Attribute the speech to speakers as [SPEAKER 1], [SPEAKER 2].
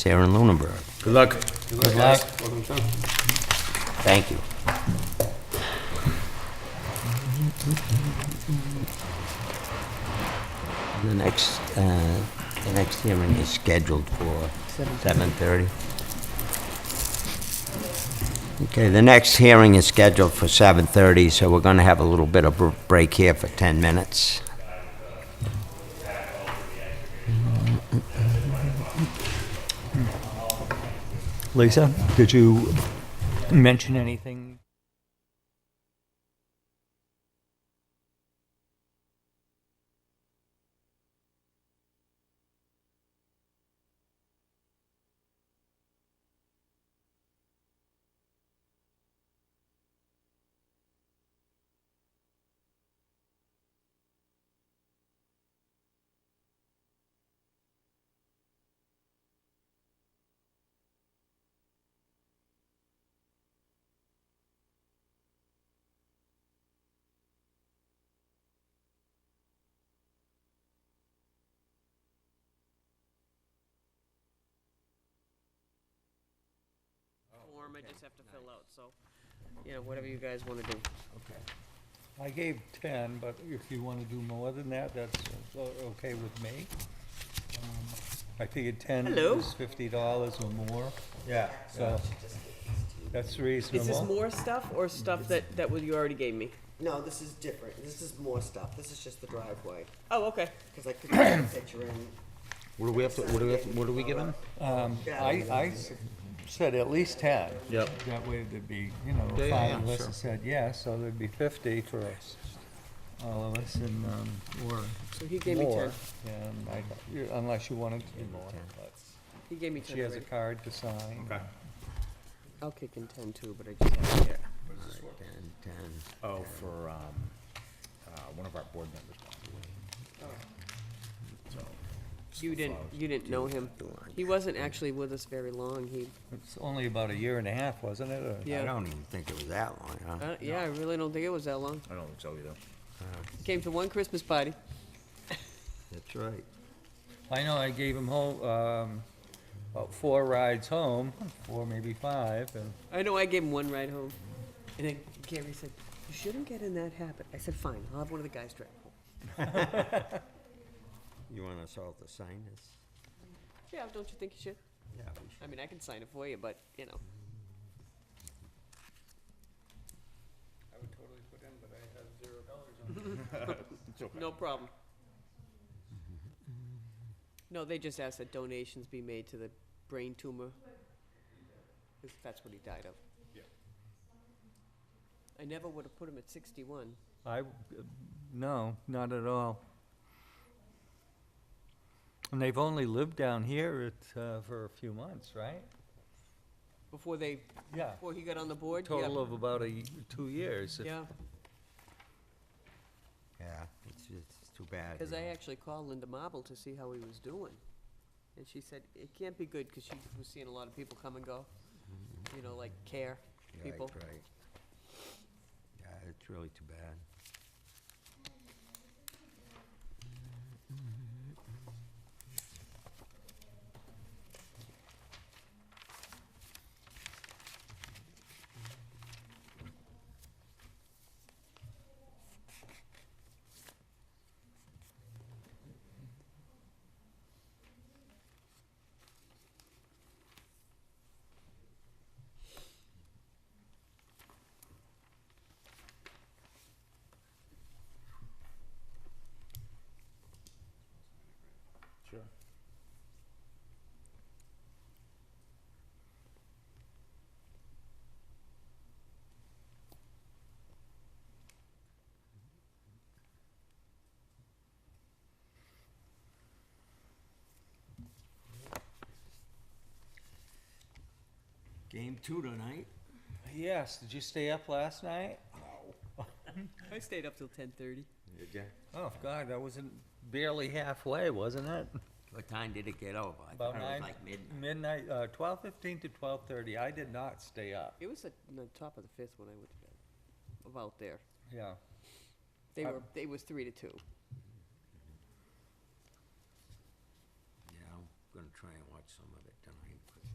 [SPEAKER 1] Sarah and Lunenburg.
[SPEAKER 2] Good luck.
[SPEAKER 1] Good luck. Thank you. The next, uh, the next hearing is scheduled for 7:30. Okay, the next hearing is scheduled for 7:30, so we're going to have a little bit of a break here for 10 minutes.
[SPEAKER 3] Lisa, did you mention anything?
[SPEAKER 4] form I just have to fill out, so, you know, whatever you guys wanna do.
[SPEAKER 3] I gave 10, but if you want to do more than that, that's o- okay with me. Um, I figured 10
[SPEAKER 4] Hello.
[SPEAKER 3] is $50 or more,
[SPEAKER 2] Yeah.
[SPEAKER 3] so that's
[SPEAKER 4] Is this
[SPEAKER 3] reasonable.
[SPEAKER 4] more stuff or stuff that, that was- you already gave me?
[SPEAKER 5] No, this is different. This is more stuff. This is just the driveway.
[SPEAKER 4] Oh, okay.
[SPEAKER 5] Because I couldn't get a picture in.
[SPEAKER 2] What do we have to, what do we have, to- what do we give him?
[SPEAKER 3] Um, I, I s- said at least 10.
[SPEAKER 2] Yep.
[SPEAKER 3] That way there'd be, you know,
[SPEAKER 2] Yeah, yeah, yeah,
[SPEAKER 3] five of us
[SPEAKER 2] sure.
[SPEAKER 3] that said yes, so there'd be 50 for us, all of us, and, um, or
[SPEAKER 4] So he gave me
[SPEAKER 3] more.
[SPEAKER 4] ten.
[SPEAKER 3] and I- you- Unless you wanted to do more, but
[SPEAKER 4] He gave me ten
[SPEAKER 3] she has a
[SPEAKER 4] already.
[SPEAKER 3] card to sign.
[SPEAKER 2] Okay.
[SPEAKER 4] I'll kick in ten too, but I just have to get.
[SPEAKER 1] Ten, ten.
[SPEAKER 2] Oh, for, um, uh, one of our board members.
[SPEAKER 4] You didn't, you didn't know him. He wasn't actually with us very long. He,
[SPEAKER 3] It's only about a year and a half, wasn't it? or-
[SPEAKER 1] I
[SPEAKER 4] yeah.
[SPEAKER 1] don't even think it was that long, huh?
[SPEAKER 4] Uh, yeah, I really don't think it was that long.
[SPEAKER 2] I don't think so either.
[SPEAKER 4] He Came to one Christmas party.
[SPEAKER 1] That's right.
[SPEAKER 3] I know I gave him home, um, about four rides home, four, maybe five, and
[SPEAKER 4] I know I gave him one ride home. And then Gary said, you shouldn't get in that habit. I said, fine, I'll have one of the guys drive home.
[SPEAKER 1] You want us all to sign this?
[SPEAKER 4] Yeah, don't you think you should?
[SPEAKER 1] Yeah, we should.
[SPEAKER 4] I mean, I can sign it for you, but, you know. I would totally put in, but I have zero dollars on it. No problem. No, they just asked that donations be made to the brain tumor, 'cause that's what he died of. I never would have put him at sixty-one.
[SPEAKER 3] I, no, not at all. And they've only lived down here it, uh, for a few months, right?
[SPEAKER 4] Before they,
[SPEAKER 3] Yeah,
[SPEAKER 4] before he got on the board, yeah.
[SPEAKER 3] total of about a, y- two years. if-
[SPEAKER 4] Yeah,
[SPEAKER 1] Yeah, it's, it's too bad.
[SPEAKER 4] because
[SPEAKER 1] you
[SPEAKER 4] I
[SPEAKER 1] know.
[SPEAKER 4] actually called Linda Marble to see how he was doing. And she said, it can't be good, because she was seeing a lot of people come and go, you know, like care
[SPEAKER 1] Right,
[SPEAKER 4] people.
[SPEAKER 1] right. Yeah, it's really too bad.
[SPEAKER 2] Sure.
[SPEAKER 1] Game two tonight.
[SPEAKER 3] Yes, did you stay up last night?
[SPEAKER 4] I stayed up till ten thirty.
[SPEAKER 1] Did ya?
[SPEAKER 3] Oh, God, that wasn't barely halfway, wasn't it?
[SPEAKER 1] What time did it get over? I
[SPEAKER 3] About
[SPEAKER 1] thought it was
[SPEAKER 3] nine-
[SPEAKER 1] like midnight.
[SPEAKER 3] Midnight, uh, twelve fifteen to twelve thirty. I did not stay up,
[SPEAKER 4] It was at the top of the fifth when I went to bed, about there.
[SPEAKER 3] yeah.
[SPEAKER 4] They
[SPEAKER 3] I-
[SPEAKER 4] were, they was three to two.
[SPEAKER 1] Yeah, I'm gonna try and